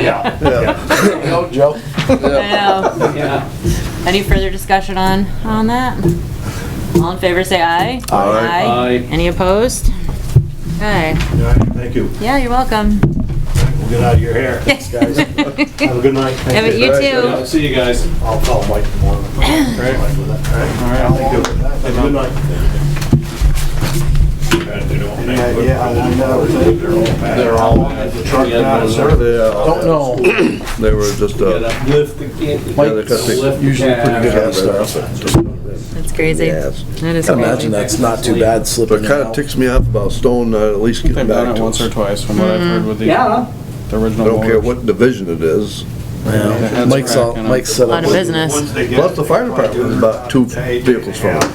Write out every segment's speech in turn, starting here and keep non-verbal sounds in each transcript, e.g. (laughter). Yeah. Go, Joe. I know. Any further discussion on, on that? All in favor, say aye. Aye. Aye. Any opposed? Okay, All right, thank you. yeah, you're welcome. We'll get out of your (laughs) hair. Thanks, guys. Have a good night. Yeah, but you Yeah, too. See you guys. I'll call Mike tomorrow. All right. All right, thank you. Have a good night. Yeah, I know. They're all. Truck down service. Don't know. They were just, uh, Lift the kid. Mike's Usually pretty good Yeah. at stuff. That's crazy. Yes. That is Imagine crazy. that's not too bad slipping but it in and kinda out. ticks me off about Stone, uh, at least They've getting done back it to once us. or I twice from what I've heard with the, Yeah. the original. don't care voters. what division it is. The Yeah. heads Mike's all, cracking up. Mike's set A lot up of with business. Plus, the fire department was about two vehicles from it.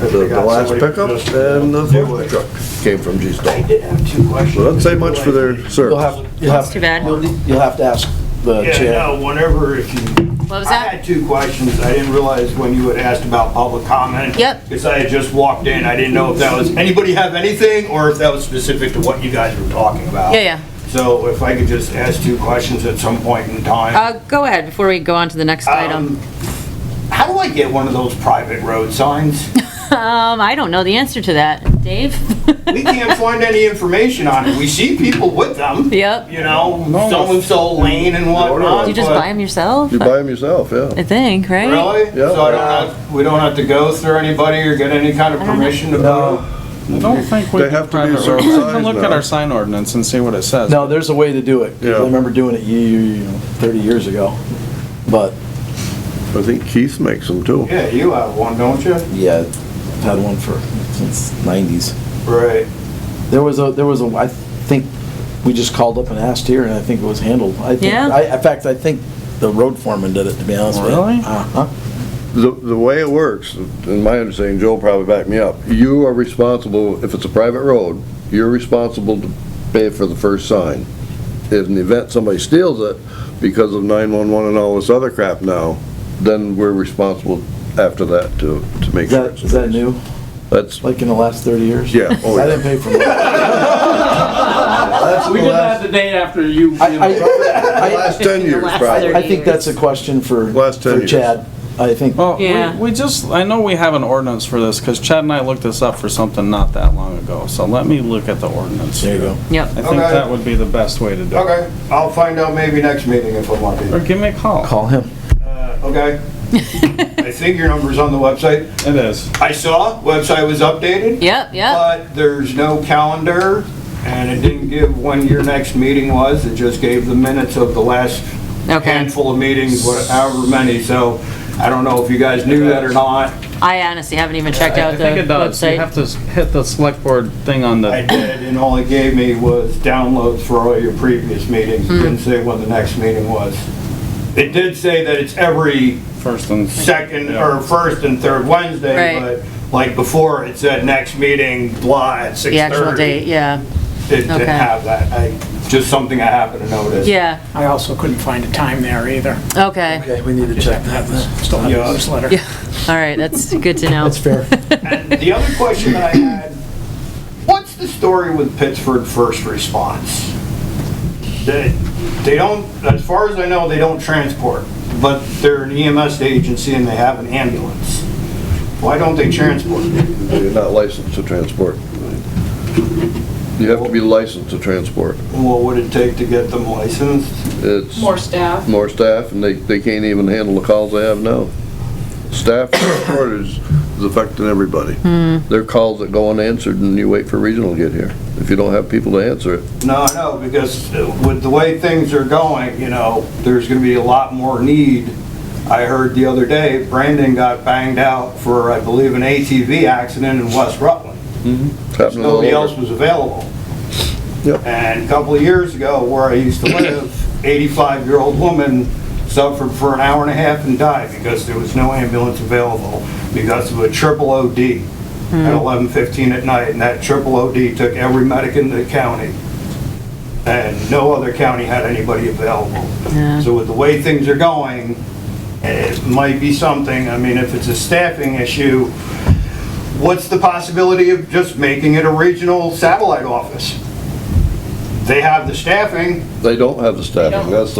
The, the last pickup and the forklift truck came from G-Stone. did have two questions. So that's say much for their You'll service. have, Too you'll have, bad. you'll have to ask the Yeah, chair. no, whenever, if you, What was I had that? two questions. I didn't realize when you had asked about public comment. Yep. Because I had just walked in. I didn't know if that was, anybody have anything or if that was specific to what you guys were talking about. Yeah, yeah. So if I could just ask two questions at some point in time. Uh, go ahead, before we go on to the next item. Um, How do I get one of those private road signs? Um, I don't know the answer to that. Dave? (laughs) We can't find any information on it. We see people with them. Yep. You know, so-and-so lane and whatnot. You just but- buy them yourself? You buy them yourself, I yeah. think, right? Really? Yeah. So I don't have, we don't have to go through anybody or get any kind of permission to go? I don't think we They do have to be a private roads. certain We size can look at now. our sign ordinance and see what it says. No, there's a way to do it. 'cause Yeah. I remember doing it you, you know, thirty years ago. But, I think Keith makes them too. Yeah, you have one, don't you? yeah, I've had one for, since nineties. Right. There was a, there was a, I think, we just called up and asked here, and I think it was handled. I think- Yeah. I, in fact, I think the road foreman did it, to be honest with you. Really? Uh-huh. The, the way it works, in my understanding, Joe probably backed me up, you are responsible, if it's a private road, you're responsible to pay for the first sign. If in the event somebody steals it because of 911 and all this other crap now, then we're responsible after that to, to make Is sure. that, it's is that new, That's, like in the last thirty years? yeah, oh (laughs) I didn't yeah. pay for mine. That's We the did that last- the day after you. I- I- Last 10 years Last probably. I think that's a question for, Last 10 for years. Chad. I think, Well, Yeah. we, we just, I know we have an ordinance for this, because Chad and I looked this up for something not that long ago, so let me look at the ordinance. there you go. I Yep. think Okay. that would be the best way to do it. Okay, I'll find out maybe next meeting if I'm lucky. Or give me a call. Call him. Uh, Okay. I think your number's on the website. It is. I saw, website was updated. Yep, yep. But there's no calendar, and it didn't give when your next meeting was, it just gave the minutes of the last Okay. handful of meetings, what- however many, so I don't know if you guys knew that or not. I honestly haven't even checked I out the think it does. You have website. to s- hit the select board thing on I the, did, and all it gave me was downloads for all your previous meetings, It Hmm. didn't say when the next meeting was. It did say that it's every first and. second, Yeah. or first and third Wednesday, Right. but like before, it said next meeting, blah, at 6:30. The actual date, yeah, It didn't Okay. have that, I, just something I happened to notice. yeah, I also couldn't find a time there either. okay, Okay, we need to check that. Still have Yeah. the newsletter. Yeah. all right, that's good to know. That's fair. And the other question that I had, what's the story with Pittsford First Response? They, they don't, as far as I know, they don't transport, but they're an EMS agency and they have an ambulance. Why don't they transport? You're not licensed to transport. You have to be licensed to transport. What would it take to get them licensed? It's. More staff. more staff, and they, they can't even handle the calls they have now. Staff (coughs) shortage is affecting everybody. There are calls that go unanswered, and you wait for regional to get here. If you don't have people to answer it, No, no, because with the way things are going, you know, there's gonna be a lot more need. I heard the other day, Brandon got banged out for, I believe, an ATV accident in West Rutland. it's happening all nobody else over. was available. Yep. And a couple of years ago, where I used to live, 85-year-old woman suffered for an hour and a half and died because there was no ambulance available because of a triple OD at 11:15 at night, and that triple OD took every medic in the county, and no other county had anybody available. Yeah. So with the way things are going, it might be something, I mean, if it's a staffing issue, What's the possibility of just making it a regional satellite office? They have the staffing, They don't have the staffing, that's the